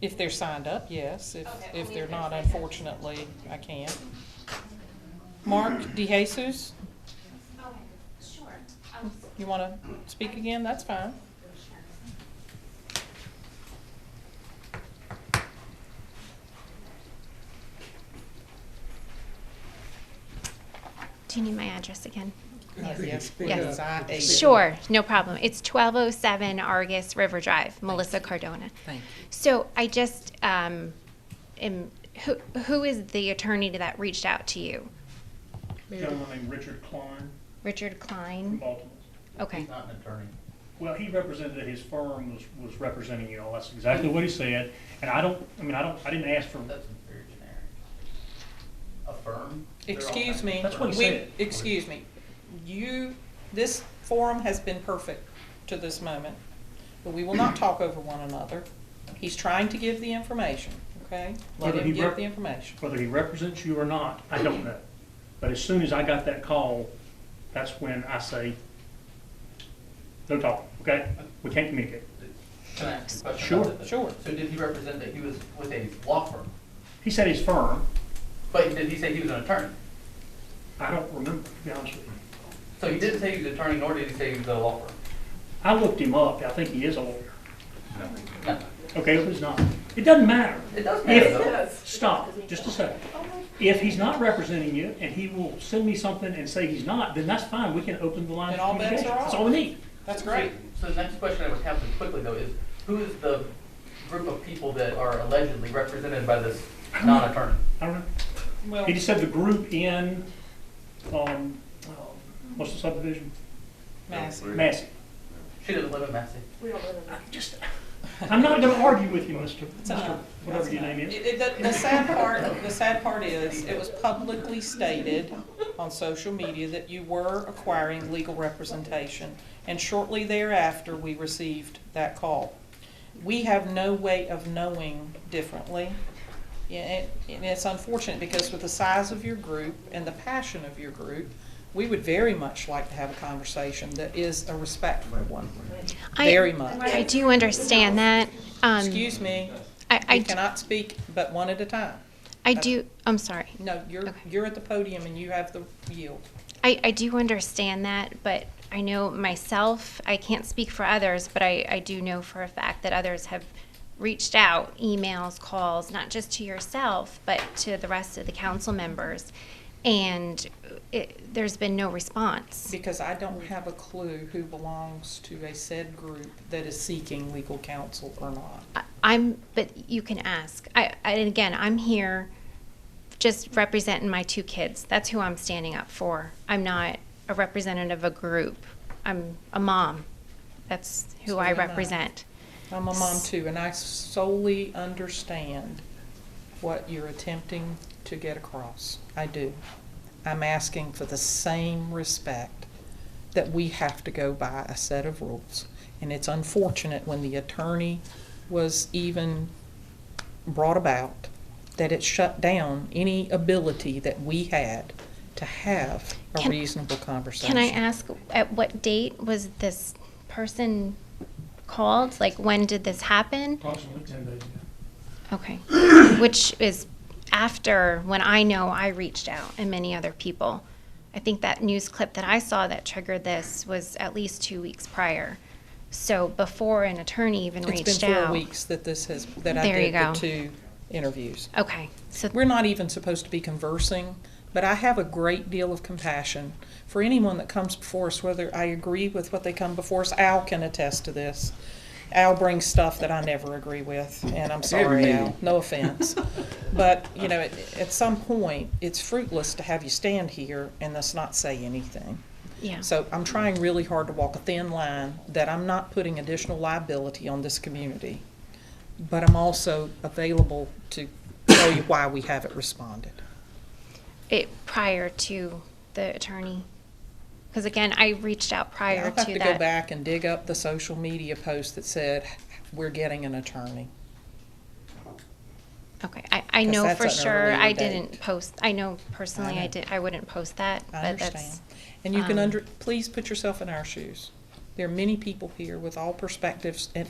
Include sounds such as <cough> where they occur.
If they're signed up, yes. If, Okay, if only they're if they're not, signed up. unfortunately, I can't. Mark DeJesus, Okay, sure. Um, I'll s- you wanna speak again? That's fine. sure. Do you need my address again? Yes, Yes. because I ate it. Sure, no problem. It's 1207 Argus River Drive, Melissa Cardona. Thank So I just, um, am, who, who is the attorney that reached out to you? Gentleman named Richard Klein Richard from Klein? Baltimore. Okay, Not an attorney. Well, he represented, that his firm was, was representing you all, that's exactly what he said, and I don't, I mean, I don't, I didn't ask for, That's very generic. A firm? They're all kinds Excuse of me. That's what he We- said. Excuse me. You, this forum has been perfect to this moment, but we will not talk over one another. He's trying to give the information, okay? Let Whether him he give rep- the information. whether he represents you or not, I don't know. But as soon as I got that call, that's when I say, no talk, okay? We can't communicate. Can I ask a question Sure, about that? sure. So did he represent that he was with a law firm? He said his firm, But did he say he was an attorney? I don't remember, to be honest with you. So he didn't say he was an attorney, nor did he say he was a law firm? I looked him up, I think he is a lawyer. No. Okay, if he's not, it doesn't matter. It does matter If- though. Stop, just a second. If he's not representing you, and he will send me something and say he's not, then that's fine, we can open the line Then of all bets are communication. That's off. all we need. That's great. So the next question I would have to quickly though is, who is the group of people that are allegedly represented by this non-attorney? I don't know, Well, he just said the group in, um, uh, what's the subdivision? Massey. Massey. She doesn't live in Massey. I'm just, I'm not gonna argue with you, Mr. It's Mr. enough. Whatever That's your enough. name is. Uh, It- it- The the sad part, the sad part is, it was publicly stated on social media that you were acquiring legal representation, and shortly thereafter, we received that call. We have no way of knowing differently, Yeah, and and it's unfortunate, because with the size of your group and the passion of your group, we would very much like to have a conversation that is a respectful one, I- very much. I do understand that. Um, Excuse me, I, I you d- cannot speak but one at a time. I do, I'm sorry. No, you're, Okay. you're at the podium and you have the yield. I, I do understand that, but I know myself, I can't speak for others, but I, I do know for a fact that others have reached out, emails, calls, not just to yourself, but to the rest of the council members. And it, there's been no response. Because I don't have a clue who belongs to a said group that is seeking legal counsel or not. I- I'm, but you can ask. I, I, and again, I'm here just representing my two kids. That's who I'm standing up for. I'm not a representative of a group. I'm a mom. That's who So I am I. represent. I'm a mom too, and I solely understand what you're attempting to get across. I do. I'm asking for the same respect that we have to go by a set of rules. And it's unfortunate when the attorney was even brought about that it shut down any ability that we had to have a Can- reasonable conversation. Can I ask, at what date was this person called? Like, when did this happen? Approximately ten days. Okay. <coughs> Which is after when I know I reached out and many other people. I think that news clip that I saw that triggered this was at least two weeks prior. So before an attorney even reached out. It's been four weeks that this has, that I There you did the go. two interviews. Okay, so, We're not even supposed to be conversing, but I have a great deal of compassion for anyone that comes before us, whether I agree with what they come before us. Al can attest to this. Al brings stuff that I never agree with, and I'm sorry, Al. No <laughs> offense. But, you know, at, at some point, it's fruitless to have you stand here and us not say anything. yeah. So I'm trying really hard to walk a thin line that I'm not putting additional liability on this community, but I'm also available to tell you why we haven't responded. It, prior to the attorney. Because again, I reached out prior I'll to that. have to go back and dig up the social media post that said, we're getting an attorney. Okay, I, I 'Cause know that's for an sure, earlier I date. didn't post, I know personally, know. I did, I wouldn't post that, I but understand. that's, And you can um, under, please put yourself in our shoes. There are many people here with all perspectives and